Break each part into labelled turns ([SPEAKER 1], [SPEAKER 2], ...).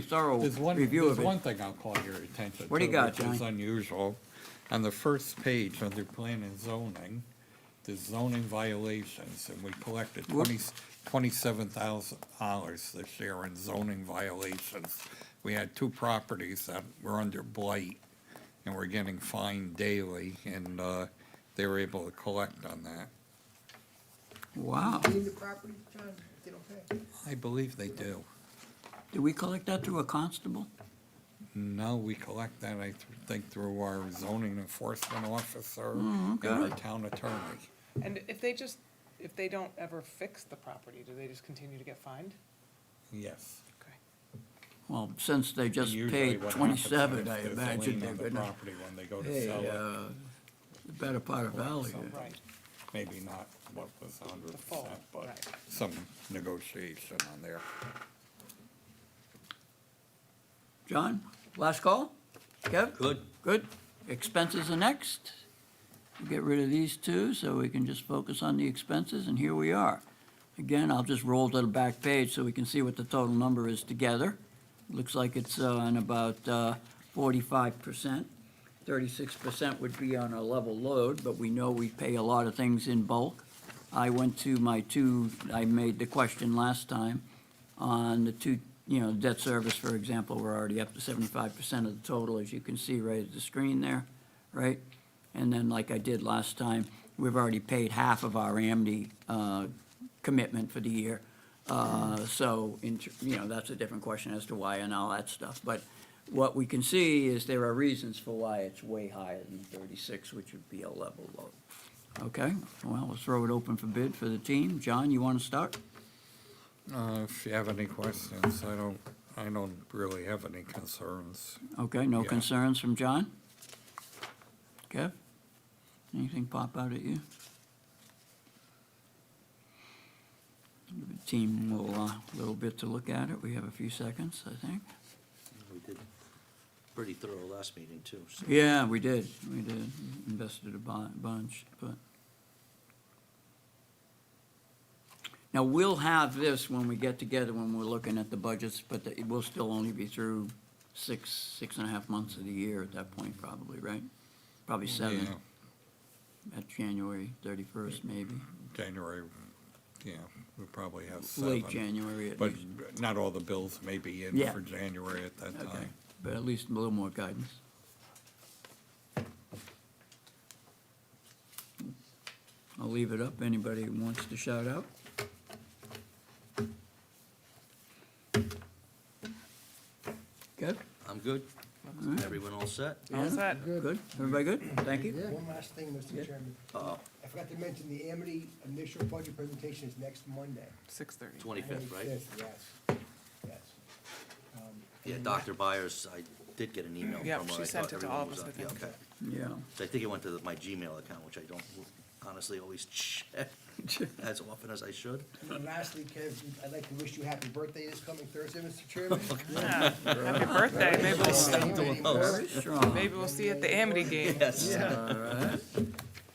[SPEAKER 1] thorough
[SPEAKER 2] There's one,
[SPEAKER 1] review
[SPEAKER 2] there's
[SPEAKER 1] of
[SPEAKER 2] one
[SPEAKER 1] it.
[SPEAKER 2] thing I'll call your attention to,
[SPEAKER 1] What do you got,
[SPEAKER 2] which is
[SPEAKER 1] Johnny?
[SPEAKER 2] unusual. On the first page, under plan and zoning, there's zoning violations, and we collected
[SPEAKER 1] Whoop.
[SPEAKER 2] twenty, twenty-seven thousand dollars this year in zoning violations. We had two properties that were under blight, and were getting fined daily, and, uh, they were able to collect on that.
[SPEAKER 1] Wow.
[SPEAKER 3] Any of the property, John, they don't pay?
[SPEAKER 2] I believe they do.
[SPEAKER 1] Did we collect that through a constable?
[SPEAKER 2] No, we collect that, I th- think, through our zoning enforcement officer
[SPEAKER 1] Mm,
[SPEAKER 2] and our
[SPEAKER 1] okay.
[SPEAKER 2] town attorney.
[SPEAKER 4] And if they just, if they don't ever fix the property, do they just continue to get fined?
[SPEAKER 2] Yes.
[SPEAKER 4] Okay.
[SPEAKER 1] Well, since they just
[SPEAKER 2] Usually
[SPEAKER 1] paid
[SPEAKER 2] what happens
[SPEAKER 1] twenty-seven,
[SPEAKER 2] is
[SPEAKER 1] I
[SPEAKER 2] there's a
[SPEAKER 1] imagine
[SPEAKER 2] lien
[SPEAKER 1] they're
[SPEAKER 2] on the
[SPEAKER 1] gonna
[SPEAKER 2] Property when they go to
[SPEAKER 1] pay,
[SPEAKER 2] sell it,
[SPEAKER 1] uh, the better part of value.
[SPEAKER 2] Something.
[SPEAKER 4] Right,
[SPEAKER 2] maybe not what was a hundred
[SPEAKER 4] The full,
[SPEAKER 2] percent, but
[SPEAKER 4] right.
[SPEAKER 2] some negotiation on there.
[SPEAKER 1] John, last call? Kev?
[SPEAKER 5] Good.
[SPEAKER 1] Good. Expenses are next. Get rid of these two so we can just focus on the expenses, and here we are. Again, I'll just roll to the back page so we can see what the total number is together. Looks like it's uh, on about forty-five percent. Thirty-six percent would be on a level load, but we know we pay a lot of things in bulk. I went to my two, I made the question last time on the two, you know, debt service, for example, we're already up to seventy-five percent of the total, as you can see right at the screen there, right? And then, like I did last time, we've already paid half of our AMNI, uh, commitment for the year. Uh, so, in, tr- you know, that's a different question as to why and all that stuff, but what we can see is there are reasons for why it's way higher than thirty-six, which would be a level load. Okay, well, let's throw it open for bid for the team. John, you wanna start?
[SPEAKER 2] Uh, if you have any questions, I don't, I don't really have any concerns.
[SPEAKER 1] Okay, no
[SPEAKER 2] Yeah.
[SPEAKER 1] concerns from John? Kev? Anything pop out at you? Give the Team will, a little bit to look at it. We have a few seconds, I think.
[SPEAKER 5] We did pretty thorough last meeting, too, so.
[SPEAKER 1] Yeah, we did, we did. Invested a bu- bunch, but. Now, we'll have this when we get together, when we're looking at the budgets, but the- it will still only be through six, six and a half months of the year at that point, probably, right? Probably seven,
[SPEAKER 2] Yeah,
[SPEAKER 1] at January thirty-first, maybe,
[SPEAKER 2] Mm-hmm. January, yeah, we probably have seven.
[SPEAKER 1] late January at
[SPEAKER 2] But
[SPEAKER 1] least.
[SPEAKER 2] not all the bills may be in
[SPEAKER 1] Yeah.
[SPEAKER 2] for January at that
[SPEAKER 1] Okay,
[SPEAKER 2] time.
[SPEAKER 1] but at least a little more guidance. I'll leave it up, anybody who wants to shout out? Good?
[SPEAKER 5] I'm good.
[SPEAKER 1] right.
[SPEAKER 5] Everyone all set?
[SPEAKER 4] All
[SPEAKER 1] Anna?
[SPEAKER 4] set.
[SPEAKER 1] Good, everybody good? Thank you.
[SPEAKER 3] One last thing, Mr. Chairman. I forgot to mention, the Amity initial budget presentation is next Monday.
[SPEAKER 4] six thirty.
[SPEAKER 5] Twenty-fifth, right?
[SPEAKER 3] 25th, Yes, yes.
[SPEAKER 5] Yeah, Dr. Byers, I did get an email from her.
[SPEAKER 4] Yeah,
[SPEAKER 5] I
[SPEAKER 4] she
[SPEAKER 5] thought
[SPEAKER 4] sent it to all of
[SPEAKER 5] everyone
[SPEAKER 4] us, I
[SPEAKER 5] was on- yeah,
[SPEAKER 4] think.
[SPEAKER 5] okay.
[SPEAKER 1] Yeah.
[SPEAKER 5] So I think it went to the- my Gmail account, which I don't honestly always check as often as I should.
[SPEAKER 3] And then lastly, Kev, I'd like to wish you happy birthday this coming Thursday, Mr. Chairman.
[SPEAKER 4] Happy birthday, maybe we'll, s-
[SPEAKER 3] Alrighty,
[SPEAKER 1] Very strong.
[SPEAKER 4] maybe we'll see you at the Amity game.
[SPEAKER 5] Yes.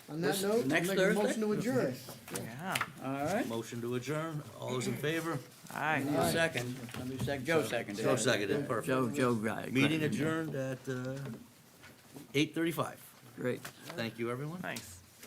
[SPEAKER 6] On that note, I'll
[SPEAKER 1] next
[SPEAKER 6] make a
[SPEAKER 1] Thursday?
[SPEAKER 6] motion to adjourn.
[SPEAKER 4] Yeah,
[SPEAKER 1] All right.
[SPEAKER 5] Motion to adjourn. All those in favor?
[SPEAKER 4] aye.
[SPEAKER 1] Second, somebody sec, Joe seconded.
[SPEAKER 5] Joe
[SPEAKER 1] it.
[SPEAKER 5] seconded, perfect.
[SPEAKER 1] Joe, Joe, right.
[SPEAKER 5] Meeting adjourned at uh, eight thirty-five.
[SPEAKER 1] Great.
[SPEAKER 5] Thank you, everyone.
[SPEAKER 4] Nice.